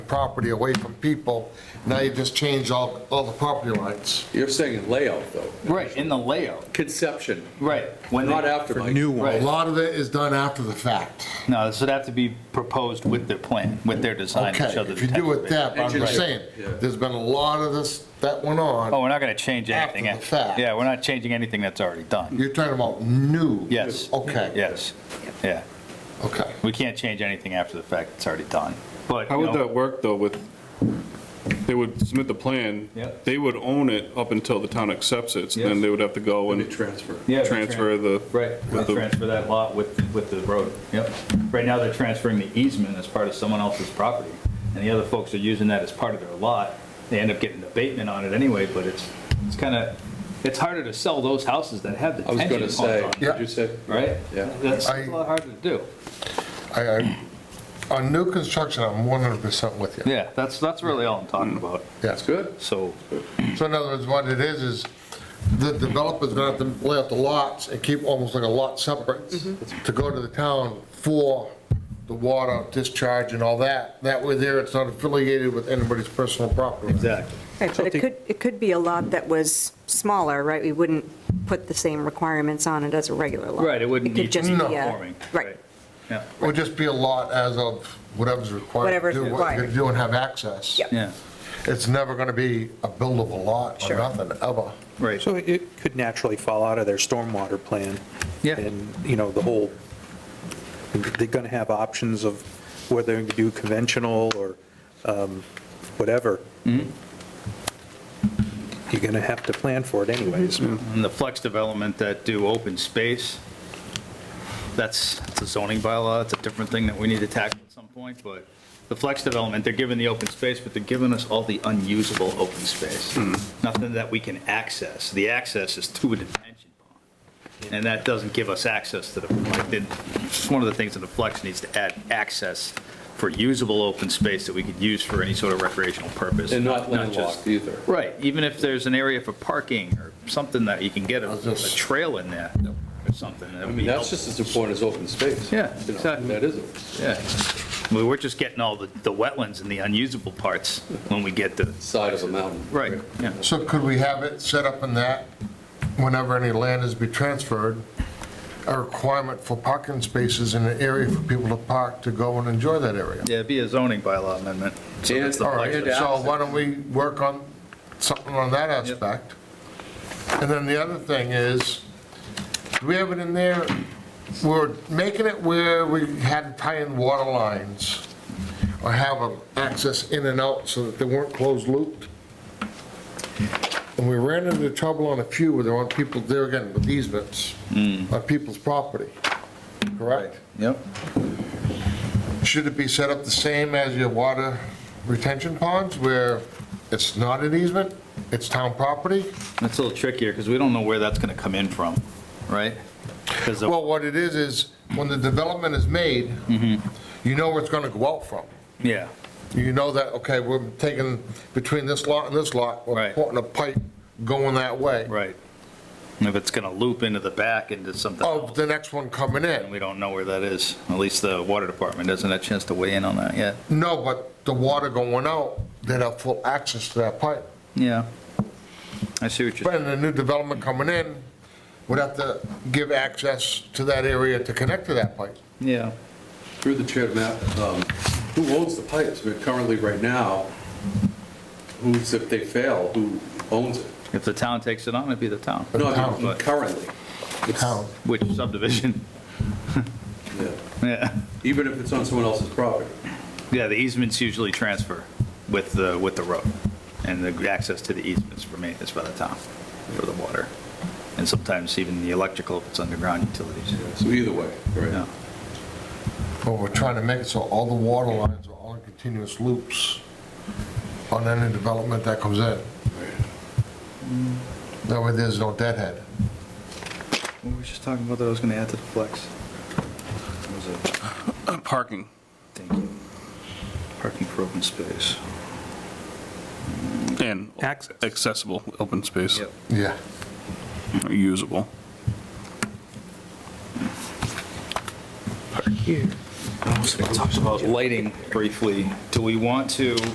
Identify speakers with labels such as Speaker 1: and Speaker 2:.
Speaker 1: property away from people. Now you just change all, all the property lines.
Speaker 2: You're saying layout, though.
Speaker 3: Right, in the layout,
Speaker 2: Conception,
Speaker 3: right. When
Speaker 2: not
Speaker 3: they,
Speaker 2: after, Mike. New.
Speaker 1: A
Speaker 3: right,
Speaker 1: lot of it is done after the fact.
Speaker 3: no, this would have to be proposed with their plan, with their design to
Speaker 1: Okay,
Speaker 3: show the
Speaker 1: if you do it
Speaker 3: detective
Speaker 1: that, but I'm just saying,
Speaker 2: Engineering, yeah.
Speaker 1: there's been a lot of this that went on.
Speaker 3: Oh, we're not going to change
Speaker 1: After
Speaker 3: anything.
Speaker 1: the fact.
Speaker 3: Yeah, we're not changing anything that's already done.
Speaker 1: You're talking about new?
Speaker 3: Yes.
Speaker 1: Okay.
Speaker 3: Yes, yeah.
Speaker 1: Okay.
Speaker 3: We can't change anything after the fact that's already done, but,
Speaker 4: How
Speaker 3: you
Speaker 4: would
Speaker 3: know,
Speaker 4: that work, though, with, they would submit the plan?
Speaker 3: Yep.
Speaker 4: They would own it up until the town accepts it, so
Speaker 3: Yes.
Speaker 4: then they would have to go and
Speaker 2: transfer.
Speaker 3: Yeah,
Speaker 4: transfer the.
Speaker 3: Right,
Speaker 4: with the-
Speaker 3: transfer that lot with, with the road, yep. Right now, they're transferring the easement as part of someone else's property, and the other folks are using that as part of their lot. They end up getting an abatement on it anyway, but it's, it's kind of, it's harder to sell those houses that have the
Speaker 2: I was
Speaker 3: tension
Speaker 2: gonna
Speaker 3: points
Speaker 2: say,
Speaker 3: on them,
Speaker 1: Yeah.
Speaker 2: did you say?
Speaker 3: right?
Speaker 2: Yeah.
Speaker 3: That's
Speaker 1: I-
Speaker 3: a lot harder to do.
Speaker 1: I, I, on new construction, I'm 100% with you.
Speaker 3: Yeah, that's, that's really all I'm talking about,
Speaker 2: That's good.
Speaker 3: so.
Speaker 1: So in other words, what it is, is the developer's gonna have to lay out the lots and keep almost like a lot separate to go to the town for the water discharge and all that. That way there, it's not affiliated with anybody's personal property.
Speaker 3: Exactly.
Speaker 5: Right, but it could, it could be a lot that was smaller, right? We wouldn't put the same requirements on it as a regular lot.
Speaker 3: Right, it wouldn't
Speaker 5: could
Speaker 3: need
Speaker 5: just
Speaker 1: to be
Speaker 5: be a-
Speaker 3: Forming.
Speaker 5: Right,
Speaker 3: Yeah,
Speaker 1: It would just be a lot as of whatever's required to
Speaker 5: Whatever's
Speaker 1: do, what you're gonna
Speaker 5: required.
Speaker 1: do and have access.
Speaker 5: Yep.
Speaker 3: yeah,
Speaker 1: It's never gonna be a buildable lot or
Speaker 5: Sure.
Speaker 1: nothing, ever.
Speaker 3: right.
Speaker 6: So it could naturally fall out of their stormwater plan.
Speaker 3: Yeah.
Speaker 6: And, you know, the whole, they're going to have options of whether to do conventional or um, whatever. You're going to have to plan for it anyways.
Speaker 3: And the flex development that do open space, that's, it's a zoning bylaw, it's a different thing that we need to tackle at some point, but the flex development, they're giving the open space, but they're giving us all the unusable open space.
Speaker 2: Hmm.
Speaker 3: Nothing that we can access. The access is through a detention pond. And that doesn't give us access to the, like, the- it's one of the things that the flex needs to add, access for usable open space that we could use for any sort of recreational purpose.
Speaker 2: And not
Speaker 3: just-
Speaker 2: landlocked either.
Speaker 3: Right, even if there's an area for parking or something that you can get a, a trail in there or something, that
Speaker 2: I
Speaker 3: would
Speaker 2: mean,
Speaker 3: be
Speaker 2: that's
Speaker 3: helpful.
Speaker 2: just as important as open space.
Speaker 3: Yeah,
Speaker 2: You know,
Speaker 3: exactly.
Speaker 2: That is it.
Speaker 3: Yeah, I mean, we're just getting all the, the wetlands and the unusable parts when we get to,
Speaker 2: Side of a mountain.
Speaker 3: right, yeah.
Speaker 1: So could we have it set up in that, whenever any land is be transferred, a requirement for parking spaces in an area for people to park to go and enjoy that area?
Speaker 3: Yeah, it'd be a zoning bylaw amendment. So that's the
Speaker 1: All right,
Speaker 3: flex-
Speaker 2: Yeah.
Speaker 1: so why don't we work on something on that aspect? And then the other thing is, do we have it in there, we're making it where we had to tie in water lines or have them access in and out so that they weren't closed looped? And we ran into trouble on a few where there were people, there again, with easements on people's property, correct?
Speaker 3: Yep.
Speaker 1: Should it be set up the same as your water retention ponds where it's not an easement, it's town property?
Speaker 3: That's a little trickier because we don't know where that's going to come in from, right? 'Cause of-
Speaker 1: Well, what it is, is when the development is made,
Speaker 3: Mm-hmm.
Speaker 1: you know where it's gonna go out from.
Speaker 3: yeah,
Speaker 1: You know that, okay, we're taking between this lot and this lot, we're
Speaker 3: Right.
Speaker 1: putting a pipe going that way
Speaker 3: right. And if it's going to loop into the back into something
Speaker 1: of
Speaker 3: else,
Speaker 1: the next one coming
Speaker 3: and
Speaker 1: in.
Speaker 3: we don't know where that is. At least the water department doesn't have a chance to weigh in on that yet.
Speaker 1: No, but the water going out, they'd have full access to that pipe.
Speaker 3: Yeah. I see what you're,
Speaker 1: But in the new development coming in, would have to give access to that area to connect to that pipe.
Speaker 3: yeah.
Speaker 2: Through the chair, Matt, um, who owns the pipes? But currently, right now, who's, if they fail, who owns it?
Speaker 3: If the town takes it on, it'd be the town.
Speaker 2: No, I
Speaker 1: town.
Speaker 2: mean, currently. It's-
Speaker 1: Town.
Speaker 3: Which subdivision?
Speaker 2: yeah.
Speaker 3: Yeah,
Speaker 2: Even if it's on someone else's property.
Speaker 3: yeah, the easements usually transfer with the, with the road. And the access to the easements for me is by the town for the water. And sometimes even the electrical if it's underground utilities.
Speaker 2: So either way,
Speaker 3: Yeah.
Speaker 2: right?
Speaker 1: But we're trying to make it so all the water lines are all in continuous loops on any development that comes in. That way there's no deadhead.
Speaker 3: We were just talking about that I was going to add to the flex.
Speaker 4: Parking.
Speaker 3: Parking for open space.
Speaker 4: And
Speaker 6: Access.
Speaker 4: accessible, open space,
Speaker 1: Yeah.
Speaker 4: usable.
Speaker 3: Talks about lighting briefly. Do we want to